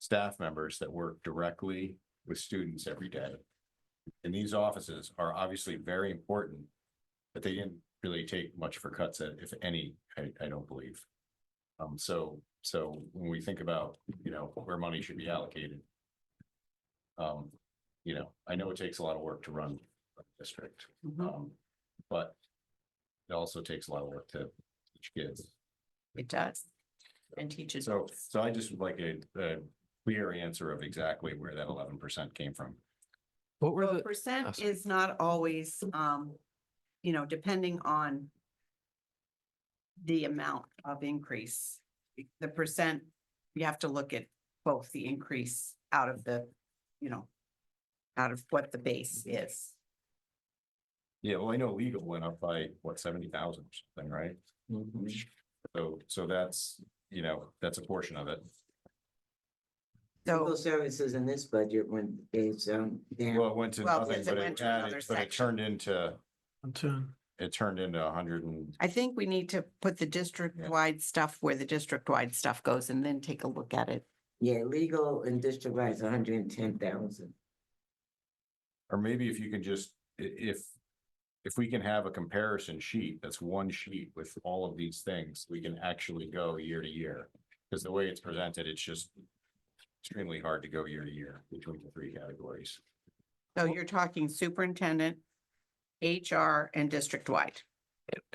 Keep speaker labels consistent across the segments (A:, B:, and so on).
A: staff members that work directly with students every day. And these offices are obviously very important, but they didn't really take much for cuts, uh, if any, I, I don't believe. Um, so, so when we think about, you know, where money should be allocated. Um, you know, I know it takes a lot of work to run a district,
B: Mm-hmm.
A: um, but it also takes a lot of work to teach kids.
B: It does. And teaches.
A: So, so I just would like a, a clear answer of exactly where that eleven percent came from.
C: What were
B: Well,
C: the,
B: percent
C: Awesome.
B: is not always, um, you know, depending on the amount of increase. The percent, you have to look at both the increase out of the, you know, out of what the base
C: Mm-hmm.
B: is.
A: Yeah, well, I know legal went up by, what, seventy thousand or something, right? So, so that's, you know, that's a portion of it.
B: So
D: Legal services in this budget when is um
A: Well,
D: down.
A: it went to
B: Well,
A: nothing,
B: yes, it
A: but
B: went
A: it
B: to another
A: added, but it
B: section.
A: turned into,
C: Antoon,
A: it turned into a hundred and,
B: I think we need to put the district-wide stuff where the district-wide stuff goes and then take a look at it.
D: Yeah, legal and district wise, hundred and ten thousand.
A: or maybe if you can just, i- if. If we can have a comparison sheet, that's one sheet with all of these things, we can actually go year to year. Because the way it's presented, it's just extremely hard to go year to year between the three categories.
B: So you're talking superintendent, HR and district-wide.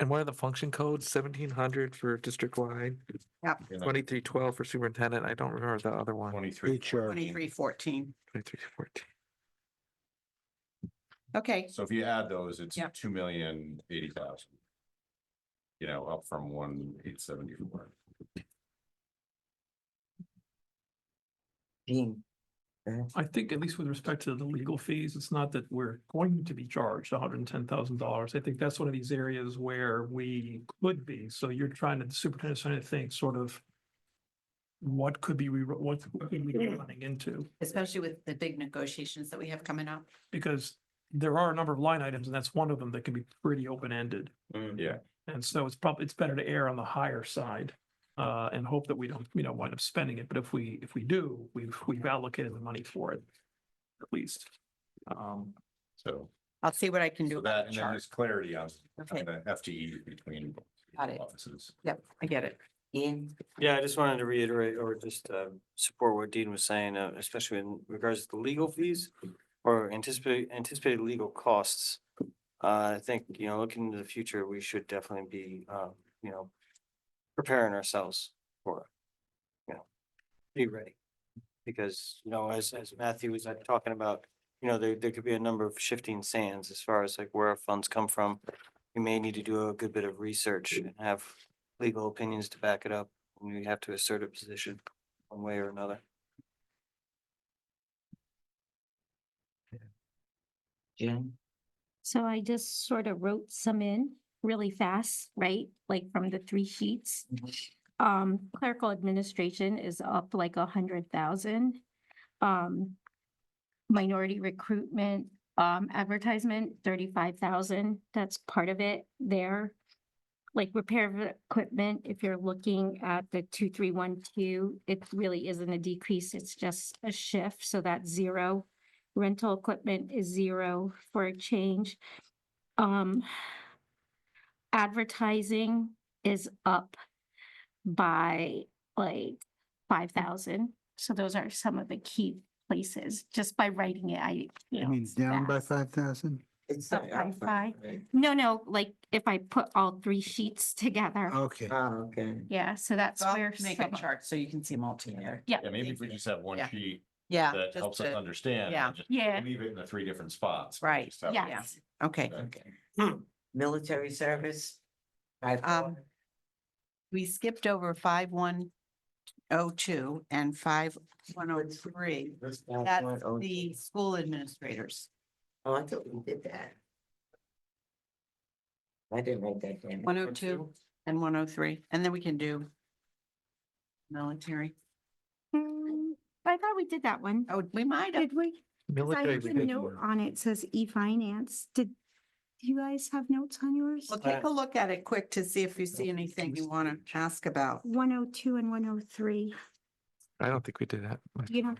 C: and what are the function codes? Seventeen hundred for district wide,
A: you know,
C: twenty-three twelve for superintendent. I don't remember the other one.
A: Twenty-three.
B: Twenty-three fourteen.
C: Twenty-three fourteen.
B: Okay,
A: So if you add those, it's
B: Yep.
A: two million eighty thousand. You know, up from one eight seventy-four.
D: Being
E: I think at least with respect to the legal fees, it's not that we're going to be charged hundred and ten thousand dollars. I think that's one of these areas where we could be. So you're trying to, the superintendent's trying to think sort of what could be, we what could we be running into?
B: especially with the big negotiations that we have coming up.
E: Because there are a number of line items and that's one of them that can be pretty open-ended.
A: Yeah.
E: And so it's probably, it's better to err on the higher side uh, and hope that we don't, you know, wind up spending it. But if we, if we do, we've, we've allocated the money for it, at least. Um,
A: So,
B: I'll see what I can do
A: so
B: about
A: that,
B: the
A: and then
B: chart.
A: there's clarity on on
B: Okay,
A: the FTE between
B: Got it.
A: offices.
B: yep, I get it.
D: in,
F: Yeah, I just wanted to reiterate or just um, support what Dean was saying, uh, especially in regards to the legal fees or anticipate, anticipated legal costs. Uh, I think, you know, looking into the future, we should definitely be, um, you know, preparing ourselves for, you know, be ready. Because, you know, as, as Matthew was like, talking about, you know, there, there could be a number of shifting sands as far as like where our funds come from. We may need to do a good bit of research and have legal opinions to back it up when you have to assert a position one way or another.
D: Jim,
G: So I just sort of wrote some in really fast, right? Like from the three sheets. Um, clerical administration is up like a hundred thousand. Um, minority recruitment, um, advertisement, thirty-five thousand. That's part of it there. Like repair of equipment, if you're looking at the two, three, one, two, it really isn't a decrease. It's just a shift. So that's zero rental equipment is zero for a change. Um, advertising is up by like five thousand. So those are some of the key places, just by writing it, I, you
H: It
G: know.
H: means down by
G: fast.
H: five thousand?
D: it's. uh,
G: Up by five. No, no, like if I put all three sheets together,
H: Okay.
D: Oh, okay.
G: yeah, so that's
B: So I'll
G: where.
B: Make a
G: some-
B: chart so you can see them all together.
A: Yeah, maybe if we just have one
B: Yeah.
A: sheet
B: Yeah.
A: that
B: just
A: helps us
B: to-
A: understand. and
B: yeah.
A: just
G: Yeah,
A: Leave it in the three different spots.
B: Right,
A: Just have-
G: yes,
B: Okay,
D: Okay. Military service. Five,
B: Hmm. Um,
D: four.
B: we skipped over five one oh two and five one oh three.
D: Let's five,
B: that's
D: one, oh,
B: The school administrators,
D: Oh, I thought we did that. I didn't write that down.
B: one oh two and one oh three, and then we can do military.
G: Mm, I thought we did that one.
B: Oh, we might have.
G: Did we? I
C: Military.
G: have a note on it, says e-finance. Did do you guys have notes on yours?
B: Well, take a look at it quick to see if you see anything you want to ask about.
G: One oh two and one oh three.
I: I don't think we did that.
C: You know,